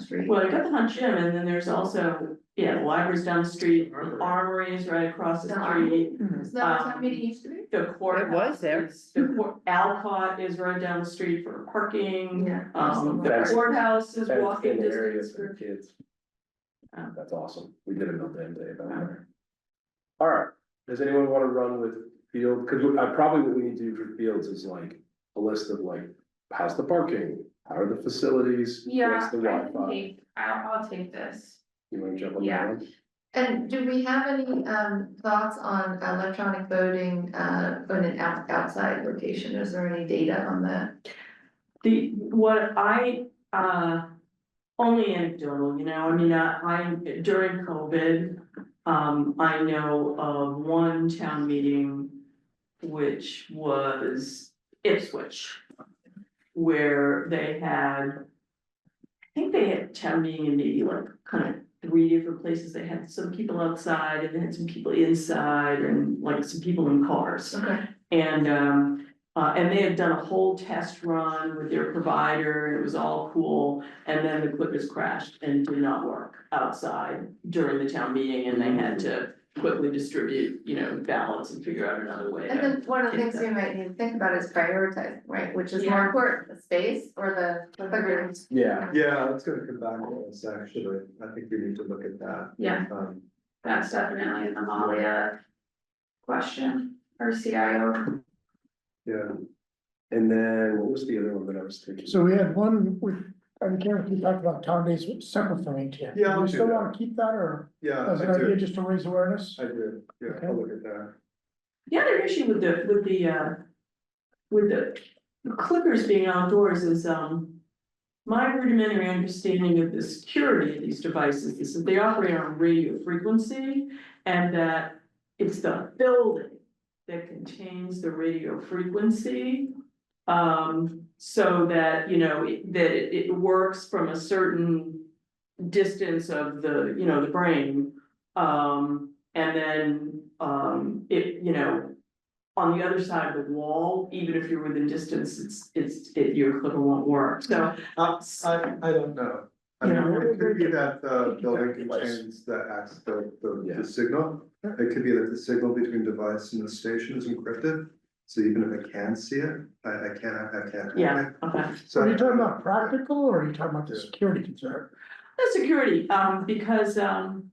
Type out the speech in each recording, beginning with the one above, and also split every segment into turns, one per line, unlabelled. street.
Well, you got the hunt gym and then there's also, yeah, the library's down the street, the armory is right across the
The
street.
Is that what that meeting used to be?
The courthouse.
was there.
is- The court, Alcott is right down the street for parking.
Yeah.
Um, the
That's-
courthouse is
That's
walking
in the area
distance
for
for,
kids.
Oh.
Um,
That's awesome, we did another damn day about
Um,
that. Alright, does anyone wanna run with field, cause we- I probably what we need to do for fields is like, a list of like, how's the parking? How are the facilities,
Yeah,
what's
I
the
can
Wi-Fi?
take, I'll, I'll take this.
You wanna jump on that
Yeah.
one?
And do we have any um thoughts on electronic voting uh in an out outside location? Is there any data on that?
the, what I, uh. Only anecdotal, you know, I mean, I, I- during COVID, um, I know of one town meeting. Which was Ipswich. Where they had. I think they had town meeting in maybe like kind of three different places, they had some people outside and they had some people inside and like some people in cars.
Okay.
And um, uh, and they had done a whole test run with their provider, and it was all cool, and then the Clippers crashed and did not work outside during the town meeting, and they had to quickly distribute, you know, ballots and figure out another way. to-
And then one of the things we might need to think about is prioritizing, right, which is more
Yeah.
important, the space or the the rooms?
Yeah,
Yeah, that's gonna come back to us, actually, I think we need to look at that,
Yeah,
um,
that's definitely an Amalia question or CIO.
yeah,
and then what was the other one that I was thinking?
So we had one with, I'm curious, we talked about town days with- separate from ATM.
Yeah, I'll
Do you
do
still
that.
wanna keep that or
yeah,
as
I
an idea
do,
just to raise awareness?
I do, yeah, I'll look at that.
The other issue with the, with the, uh, with the clippers being outdoors is, um. My rudimentary understanding of the security of these devices is that they operate on radio frequency and that it's the building. That contains the radio frequency. Um, so that, you know, it- that it, it works from a certain distance of the, you know, the brain. Um, and then, um, it, you know, on the other side of the wall, even if you're within distance, it's, it's, it, your clipper won't work, so.
Uh, I, I don't know, I mean, it could be that the building contains the access, the, the,
Yeah.
the signal. It could be that the signal between device and the station is encrypted, so even if I can see it, I, I can't, I can't. hack
Yeah,
it.
okay.
So.
Are you talking about practical or are you talking about the security concern?
The security, um, because, um,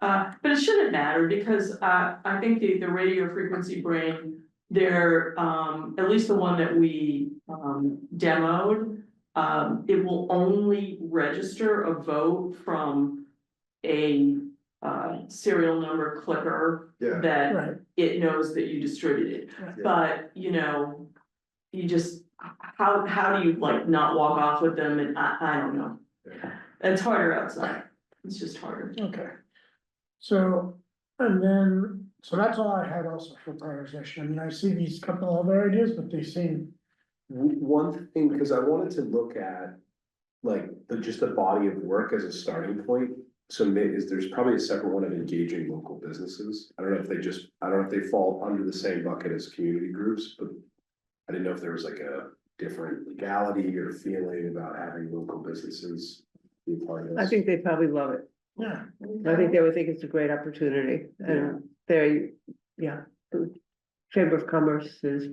uh, but it shouldn't matter because, uh, I think the, the radio frequency brain, they're, um, at least the one that we, um, demoed, um, it will only register a vote from a, uh, serial number clicker
Yeah,
that
Right,
it knows that you distributed.
Right.
But, you know, you just, how, how do you like not walk off with them and I, I don't know.
Yeah.
It's harder outside, it's just harder.
okay. So, and then, so that's all I had also for prioritization. I mean, I see these couple other ideas, but they seem,
W- One thing, because I wanted to look at, like, the, just the body of work as a starting point. So maybe, is, there's probably a separate one of engaging local businesses, I don't know if they just, I don't know if they fall under the same bucket as community groups, but. I didn't know if there was like a different legality or feeling about having local businesses be a part of this.
I think they probably love it.
yeah.
I think they would think it's a great opportunity and they, yeah. the Chamber of Commerce is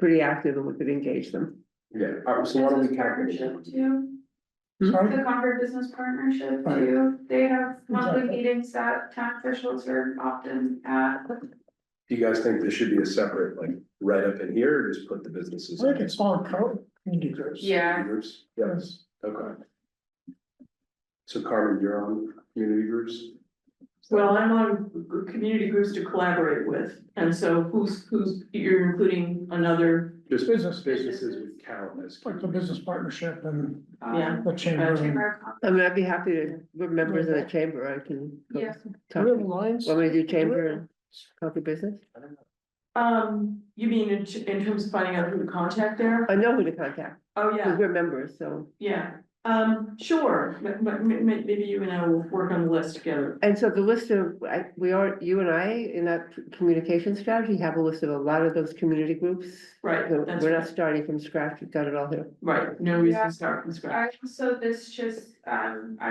pretty active and we could engage them.
Yeah, all right, so why don't we calculate
Partnership
that?
too,
Sorry?
the Concord Business Partnership
Right.
too, they have monthly
Exactly.
meetings that town officials are often at.
Do you guys think this should be a separate, like, right up in here, or just put the businesses?
I think it's all co- community groups.
Yeah.
Groups, yes.
Yes.
Okay. So Carmen, you're on community groups?
Well, I'm on community groups to collaborate with, and so who's, who's, you're including another,
Just
Business.
Businesses would count as.
Like the business partnership and
Uh,
yeah.
the chamber. and-
Chamber of Commerce.
I mean, I'd be happy to, we're members of the chamber, I can. go
Yeah.
Do
talk.
we have lines?
Want me to do chamber and coffee business?
Um, you mean in, t- in terms of finding out who to contact there?
I know who to contact,
Oh, yeah.
because we're members, so.
Yeah, um, sure, but, but ma- ma- maybe you and I will work on the list together.
And so the list of, I, we are, you and I, in that communication strategy, have a list of a lot of those community groups.
Right,
So
that's
We're
right.
not starting from scratch, we've got it all here.
Right, no reason
Yeah.
to start from scratch.
I, so this just, um,